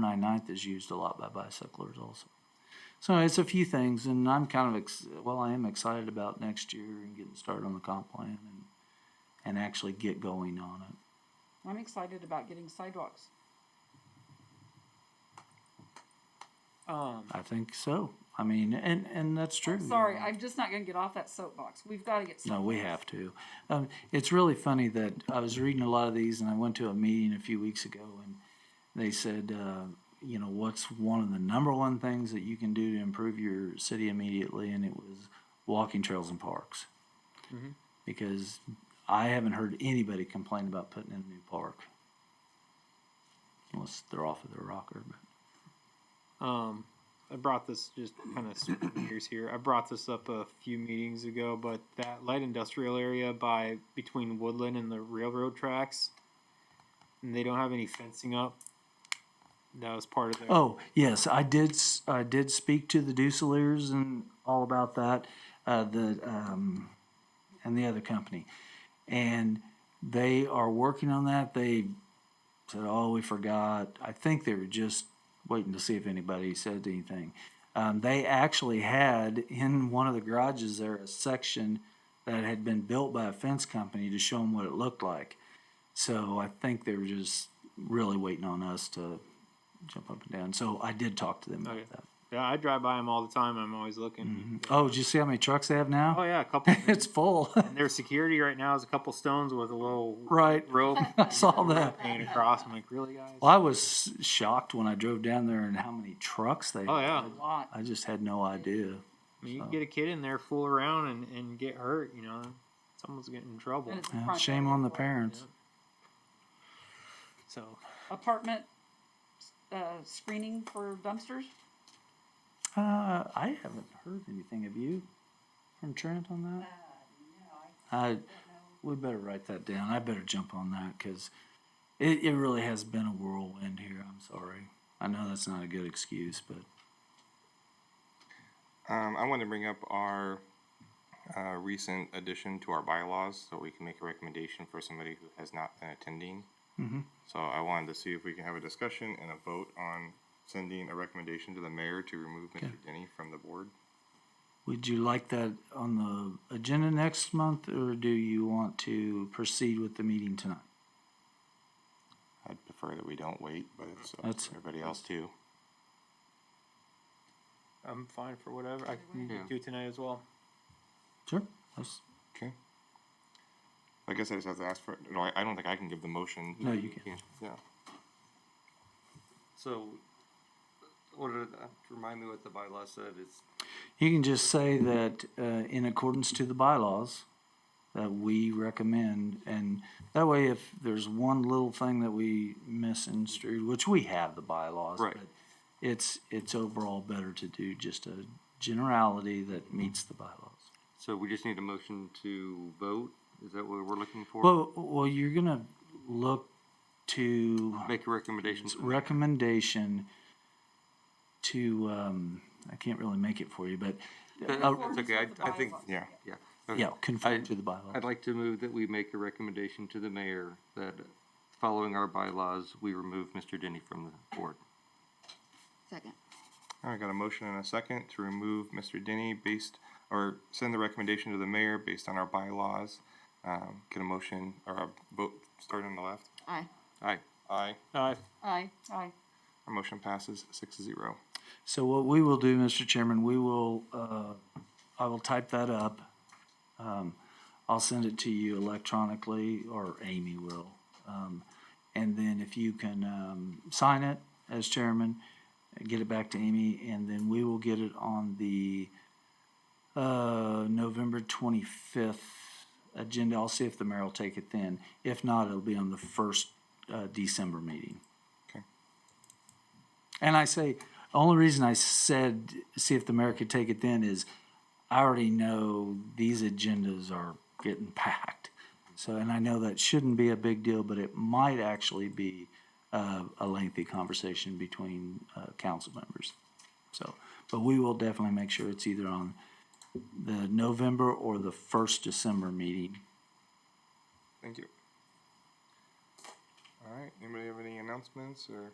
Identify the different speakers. Speaker 1: 199th is used a lot by bicyclers also. So it's a few things, and I'm kind of, ex- well, I am excited about next year and getting started on the comp plan and, and actually get going on it.
Speaker 2: I'm excited about getting sidewalks.
Speaker 3: Um,
Speaker 1: I think so. I mean, and, and that's true. you
Speaker 2: Sorry,
Speaker 1: know.
Speaker 2: I'm just not gonna get off that soapbox. We've gotta get.
Speaker 1: No, we
Speaker 2: sidewalks.
Speaker 1: have to. Um, it's really funny that I was reading a lot of these, and I went to a meeting a few weeks ago, and they said, uh, you know, what's one of the number one things that you can do to improve your city immediately? And it was walking trails and parks.
Speaker 3: Mhm.
Speaker 1: Because I haven't heard anybody complain about putting in a new park. Unless they're off of their rocker. But.
Speaker 3: um, I brought this just kind of switching gears here. I brought this up a few meetings ago, but that light industrial area by between Woodland and the railroad tracks, and they don't have any fencing up. That was part of their.
Speaker 1: Oh yes, I did. s- I did speak to the Duceliers and all about that. Uh, the um, and the other company, and they are working on that. They said, "Oh, we forgot." I think they were just waiting to see if anybody said anything. Um, they actually had in one of the garages there a section that had been built by a fence company to show them what it looked like. So I think they were just really waiting on us to jump up and down. So I did talk to them about
Speaker 3: Okay.
Speaker 1: that.
Speaker 3: Oh, Yeah, I drive by them all the time. I'm always looking.
Speaker 1: Oh, did you see how many trucks they have
Speaker 3: Oh
Speaker 1: now?
Speaker 3: yeah, a couple.
Speaker 1: it's full.
Speaker 3: and their security right now is a couple stones with a little
Speaker 1: right.
Speaker 3: rope
Speaker 1: I saw that.
Speaker 3: hanging across. I'm like, really, guys?
Speaker 1: Well, I was shocked when I drove down there and how many trucks they
Speaker 3: Oh yeah.
Speaker 2: A lot.
Speaker 1: I just had no idea.
Speaker 3: I mean, you
Speaker 1: So-
Speaker 3: can get a kid in there, fool around, and, and get hurt. You know, someone's getting in trouble.
Speaker 2: And it's a
Speaker 1: Yeah,
Speaker 2: front
Speaker 1: shame
Speaker 2: yard.
Speaker 1: on the parents.
Speaker 3: So
Speaker 2: Apartment, uh, screening for dumpsters.
Speaker 1: Uh, I haven't heard anything of you from Trent on that. I, we better write that down. I better jump on that because it, it really has been a whirlwind here. I'm sorry. I know that's not a good excuse, but
Speaker 4: Um, I want to bring up our uh, recent addition to our bylaws so we can make a recommendation for somebody who has not been attending.
Speaker 1: Mhm.
Speaker 4: So I wanted to see if we can have a discussion and a vote on sending a recommendation to the mayor to remove Mr. Denny from the board.
Speaker 1: would you like that on the agenda next month or do you want to proceed with the meeting tonight?
Speaker 4: I'd prefer that we don't wait, but it's up
Speaker 1: That's-
Speaker 4: to everybody else too.
Speaker 3: I'm fine for whatever. I can
Speaker 4: Yeah.
Speaker 3: do it tonight as well.
Speaker 1: Sure. That's-
Speaker 4: Okay. I guess I just have to ask for, no, I, I don't think I can give the motion.
Speaker 1: No, you can.
Speaker 4: Yeah.
Speaker 5: So, what are, the- remind me what the bylaw said, it's,
Speaker 1: You can just say that uh, in accordance to the bylaws that we recommend, and that way, if there's one little thing that we misconstrued, which we have the bylaws,
Speaker 5: Right.
Speaker 1: but it's it's overall better to do just a generality that meets the bylaws.
Speaker 5: so we just need a motion to vote, is that what we're looking for?
Speaker 1: Well, well, you're gonna look to
Speaker 5: Make a recommendation,
Speaker 1: It's
Speaker 5: to-
Speaker 1: recommendation to um, I can't really make it for you, but uh,
Speaker 5: It's okay, I- I think-
Speaker 4: Yeah.
Speaker 5: yeah.
Speaker 1: yeah,
Speaker 5: okay.
Speaker 1: conform
Speaker 5: I-
Speaker 1: to the bylaws.
Speaker 5: I'd like to move that we make a recommendation to the mayor that, following our bylaws, we remove Mr. Denny from the board.
Speaker 2: Second.
Speaker 4: All right, got a motion and a second to remove Mr. Denny based, or send the recommendation to the mayor based on our bylaws. Um, get a motion or a vote starting on the left.
Speaker 2: Aye.
Speaker 5: Aye.
Speaker 4: Aye.
Speaker 3: Uh,
Speaker 2: Aye. Aye.
Speaker 4: Our motion passes six to zero.
Speaker 1: So what we will do, Mr. Chairman, we will, uh, I will type that up. Um, I'll send it to you electronically, or Amy will. Um, and then if you can, um, sign it as chairman, get it back to Amy, and then we will get it on the, uh, November twenty-fifth agenda. I'll see if the mayor will take it then. If not, it'll be on the first, uh, December meeting. And I say, the only reason I said, see if the mayor could take it then is I already know these agendas are getting packed. So, and I know that shouldn't be a big deal, but it might actually be uh, a lengthy conversation between uh, council members. So, but we will definitely make sure it's either on the November or the first December meeting.
Speaker 4: Thank you. All right, anybody have any announcements or